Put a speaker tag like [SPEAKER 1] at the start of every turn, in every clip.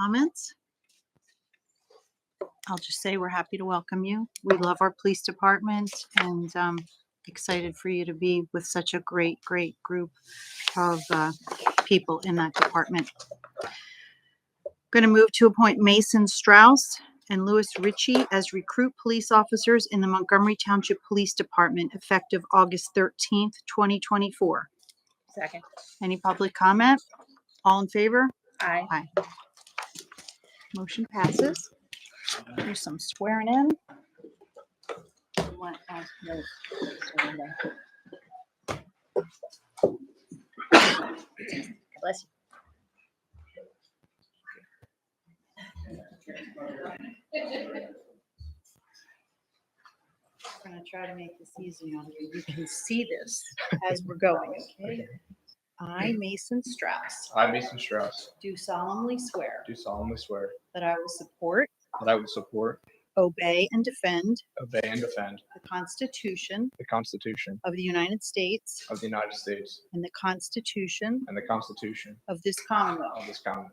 [SPEAKER 1] comments? I'll just say we're happy to welcome you. We love our police department and um, excited for you to be with such a great, great group of uh, people in that department. Going to move to appoint Mason Strauss and Louis Ritchie as recruit police officers in the Montgomery Township Police Department effective August 13th, 2024.
[SPEAKER 2] Second.
[SPEAKER 1] Any public comment? All in favor?
[SPEAKER 2] Aye.
[SPEAKER 1] Motion passes. Do some swearing in.
[SPEAKER 2] Want us to swear them. Bless you.
[SPEAKER 1] I'm gonna try to make this easy on you. You can see this as we're going, okay? I, Mason Strauss,
[SPEAKER 3] I, Mason Strauss,
[SPEAKER 1] do solemnly swear
[SPEAKER 3] do solemnly swear
[SPEAKER 1] that I will support,
[SPEAKER 3] that I will support,
[SPEAKER 1] obey, and defend
[SPEAKER 3] obey, and defend
[SPEAKER 1] the Constitution
[SPEAKER 3] the Constitution
[SPEAKER 1] of the United States
[SPEAKER 3] of the United States
[SPEAKER 1] and the Constitution
[SPEAKER 3] and the Constitution
[SPEAKER 1] of this
[SPEAKER 3] of
[SPEAKER 1] Commonwealth,
[SPEAKER 3] this Commonwealth,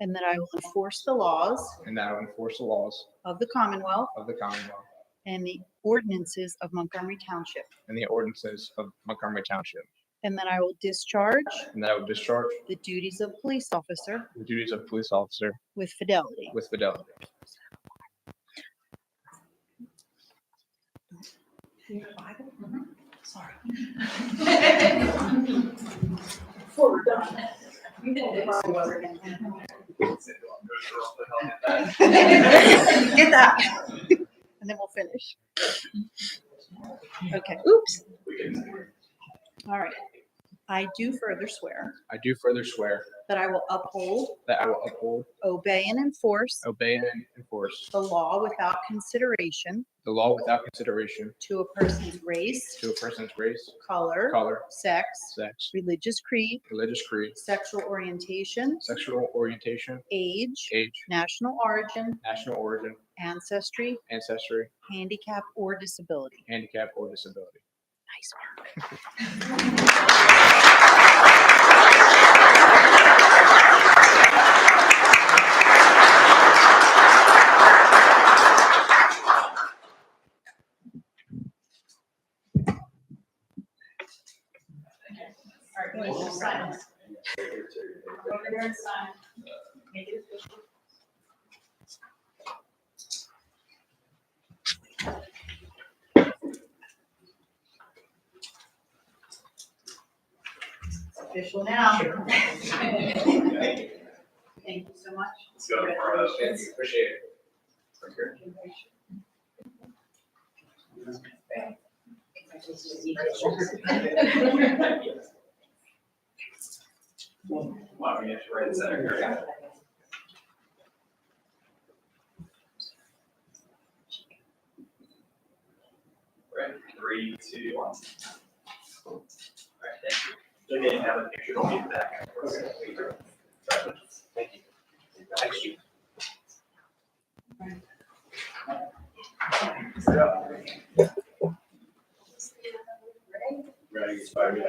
[SPEAKER 1] and that I will enforce the laws
[SPEAKER 3] and that I will enforce the laws
[SPEAKER 1] of the Commonwealth
[SPEAKER 3] of the Commonwealth
[SPEAKER 1] and the ordinances of Montgomery Township,
[SPEAKER 3] and the ordinances of Montgomery Township,
[SPEAKER 1] and that I will discharge
[SPEAKER 3] and that I will discharge
[SPEAKER 1] the duties of police officer
[SPEAKER 3] the duties of police officer
[SPEAKER 1] with fidelity.
[SPEAKER 3] with fidelity.
[SPEAKER 1] Sorry. Get that. And then we'll finish. Okay, Mm-hmm. oops. All right. I do further swear
[SPEAKER 3] I do further swear
[SPEAKER 1] that I will uphold,
[SPEAKER 3] that I will uphold,
[SPEAKER 1] obey, and enforce
[SPEAKER 3] obey, and enforce
[SPEAKER 1] the law without consideration
[SPEAKER 3] the law without consideration
[SPEAKER 1] to a person's race,
[SPEAKER 3] to a person's race,
[SPEAKER 1] color,
[SPEAKER 3] color,
[SPEAKER 1] sex,
[SPEAKER 3] sex,
[SPEAKER 1] religious creed,
[SPEAKER 3] religious creed,
[SPEAKER 1] sexual orientation,
[SPEAKER 3] sexual orientation,
[SPEAKER 1] age,
[SPEAKER 3] age,
[SPEAKER 1] national origin,
[SPEAKER 3] national origin,
[SPEAKER 1] ancestry,
[SPEAKER 3] ancestry,
[SPEAKER 1] handicap, or disability.
[SPEAKER 3] handicap, or disability.
[SPEAKER 1] Nice work. It's official now. Thank you so much.
[SPEAKER 4] Let's go. Thank you. Appreciate it. Why don't we get you right in center? Right, three, two, one. All right, thank you. Again, have a picture, don't be back. Thank you. Thank you. Ready, inspired.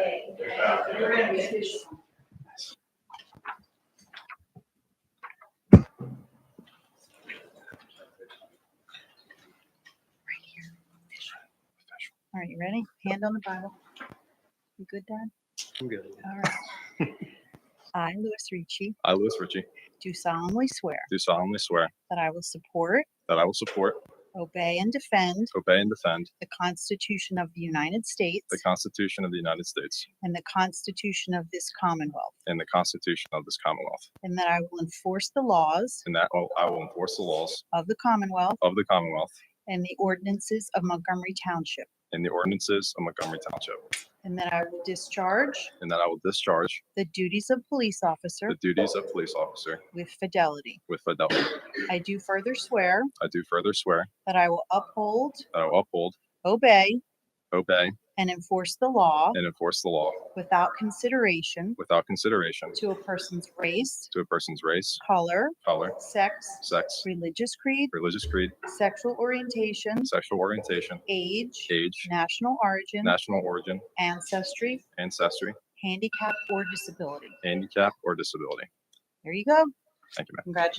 [SPEAKER 1] All right, you ready? Hand on the Bible. You good, Dad?
[SPEAKER 3] I'm good.
[SPEAKER 1] All right. I, Louis Ricci,
[SPEAKER 5] I, Louis Ritchie,
[SPEAKER 1] do solemnly swear
[SPEAKER 5] do solemnly swear
[SPEAKER 1] that I will support,
[SPEAKER 5] that I will support,
[SPEAKER 1] obey, and defend
[SPEAKER 5] obey, and defend
[SPEAKER 1] the Constitution of the United States
[SPEAKER 5] the Constitution of the United States
[SPEAKER 1] and the Constitution of this Commonwealth,
[SPEAKER 5] and the Constitution of this Commonwealth,
[SPEAKER 1] and that I will enforce the laws
[SPEAKER 5] and that I will- I will enforce the laws
[SPEAKER 1] of the Commonwealth
[SPEAKER 5] of the Commonwealth
[SPEAKER 1] and the ordinances of Montgomery Township,
[SPEAKER 5] and the ordinances of Montgomery Township,
[SPEAKER 1] and that I will discharge
[SPEAKER 5] and that I will discharge
[SPEAKER 1] the duties of police officer
[SPEAKER 5] the duties of police officer
[SPEAKER 1] with fidelity.
[SPEAKER 5] with fidelity.
[SPEAKER 1] I do further swear
[SPEAKER 5] I do further swear
[SPEAKER 1] that I will uphold,
[SPEAKER 5] that I will uphold,
[SPEAKER 1] obey,
[SPEAKER 5] obey,
[SPEAKER 1] and enforce the law
[SPEAKER 5] and enforce the law
[SPEAKER 1] without consideration
[SPEAKER 5] without consideration
[SPEAKER 1] to a person's race,
[SPEAKER 5] to a person's race,
[SPEAKER 1] color,
[SPEAKER 5] color,
[SPEAKER 1] sex,
[SPEAKER 5] sex,
[SPEAKER 1] religious creed,
[SPEAKER 5] religious creed,
[SPEAKER 1] sexual orientation,
[SPEAKER 5] sexual orientation,
[SPEAKER 1] age,
[SPEAKER 5] age,
[SPEAKER 1] national origin,
[SPEAKER 5] national origin,
[SPEAKER 1] ancestry,
[SPEAKER 5] ancestry,
[SPEAKER 1] handicap, or disability.
[SPEAKER 5] handicap, or disability.
[SPEAKER 1] There you go.
[SPEAKER 5] Thank you, ma'am.
[SPEAKER 1] Congratulations.